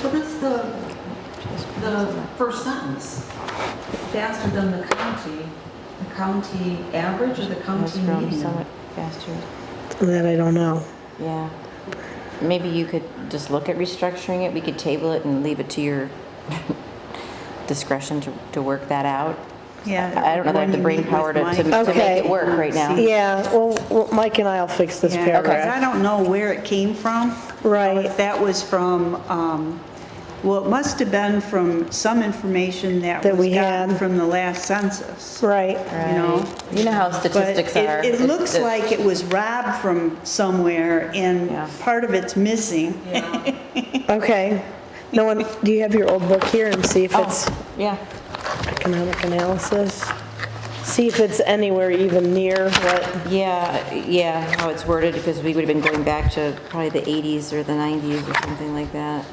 the, the first sentence. Faster than the county, the county average or the Most county rooms median? somewhat faster. That I don't know. Yeah. Maybe you could just look at restructuring it. We could table it and leave it to your discretion to, to work that out. Yeah. I don't know that I have the When brain you meet power with to- to- to Mike. make it work right now. Yeah, Yeah, well, well, Mike and I'll fix this Yeah, because I paragraph. don't know where it came from. Right. If that was from, um, well, it must have been from some information that That was we gotten had. from the last census. Right, You know? You know how But statistics it, are. it looks like it was robbed from somewhere and Yeah. part of it's missing. Yeah. okay. No one, do you have your old book here and see if it's Oh, yeah. economic analysis? See if it's anywhere even near what, Yeah, yeah, how it's worded, because we would have been going back to probably the 80s or the 90s or something like that.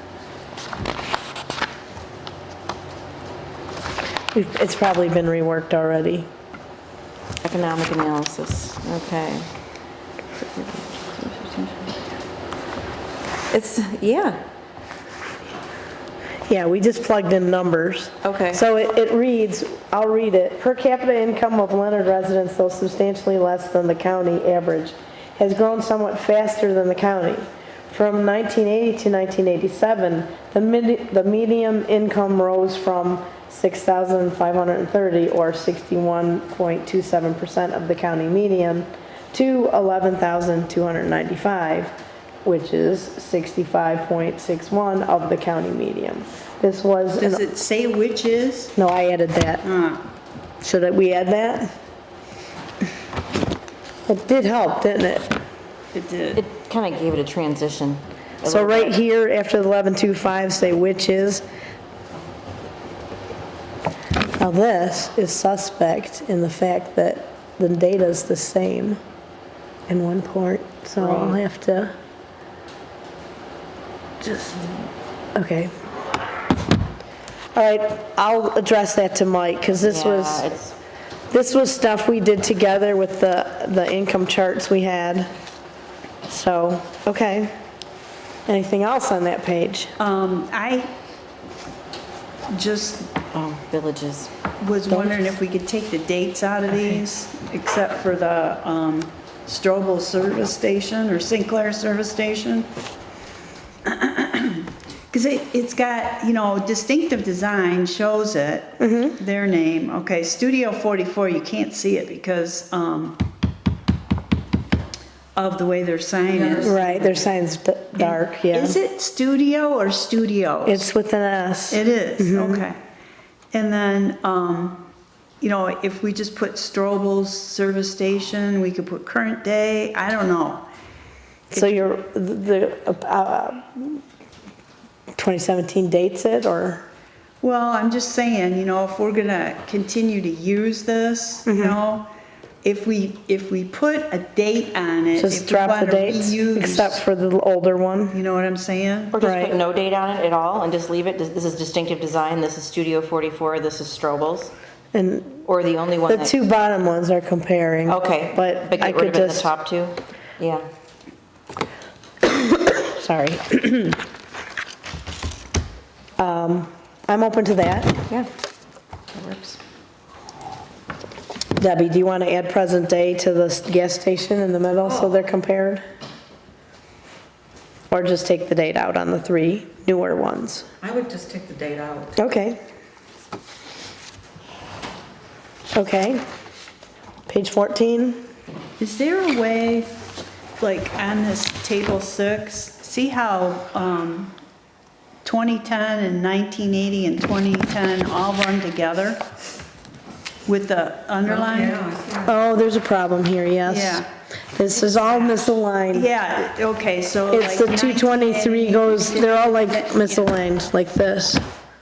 it's probably been reworked already. Economic analysis, okay. It's, yeah, Yeah, we just plugged in numbers. Okay. So it, it reads, I'll read it. Per capita income of Leonard residents, though substantially less than the county average, has grown somewhat faster than the county. From 1980 to 1987, the mid, the medium income rose from 6,530 or 61.27% of the county median to 11,295 which is 65.61 of the county median. This was, an- Does it say which is? no, I added that. Uh, Should I- we add that? It did help, didn't it? It did. it kind of gave it a transition. a So little right bit. here, after the 1125, say which is. Now this is suspect in the fact that the data's the same in one part, so I'll Right. have to just, okay. All right, I'll address that to Mike, because this Yeah, was. it's- This was stuff we did together with the, the income charts we had. So, okay. Anything else on that page? Um, I just oh, Villages, was wondering if we could take the dates out of these, except for the um, Strobel Service Station or Sinclair Service Station. Because it, it's got, you know, distinctive design shows it, Mm-hmm. their name. Okay, Studio 44, you can't see it because um, of the way their sign is. Right, their sign's d- dark, yeah. Is it studio or studios? It's with an S. It is, Mm-hmm. okay. And then, um, you know, if we just put Strobel's service station, we could put current day, I don't know. So your, the, uh, 2017 dates it, or? Well, I'm just saying, you know, if we're gonna continue to use this, Mm-hmm. you know, if we, if we put a date on it. Just if we drop the wanna dates, reuse- except for the older one? You know what I'm saying? or just Right. put no date on it at all and just leave it, this this is distinctive design, this is Studio 44, this is Strobel's, And or the only one the that... two bottom ones are comparing. Okay. But get I rid could of it in The just, top two, yeah. sorry. Um, I'm open to that. Yeah, that works. Debbie, do you want to add present day to the s- gas station in the middle so they're compared? Or just take the date out on the three newer ones? I would just take the date out. Okay. Okay. Page 14? Is there a way, like on this table six, see how um, 2010 and 1980 and 2010 all run together with the underline? Yeah, I see. Oh, there's a problem here, yes. Yeah. This is all misaligned. Yeah, okay, so like. It's the 223 goes, they're all like misaligned, like this.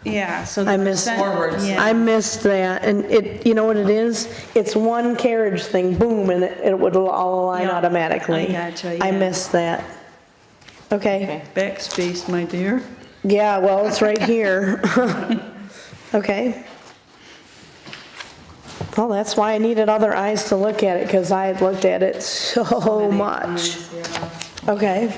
Yeah, so. the I missed. percent- Forwards. yeah. I missed that, and it, you know what it is? It's one carriage thing, boom, and it it would all align Yeah, automatically. I gotcha, I yeah. missed that. Okay, Okay. Backspace, my dear. yeah, well, it's right here. Okay. Well, that's why I needed other eyes to look at it, because I had looked at it so much. Okay.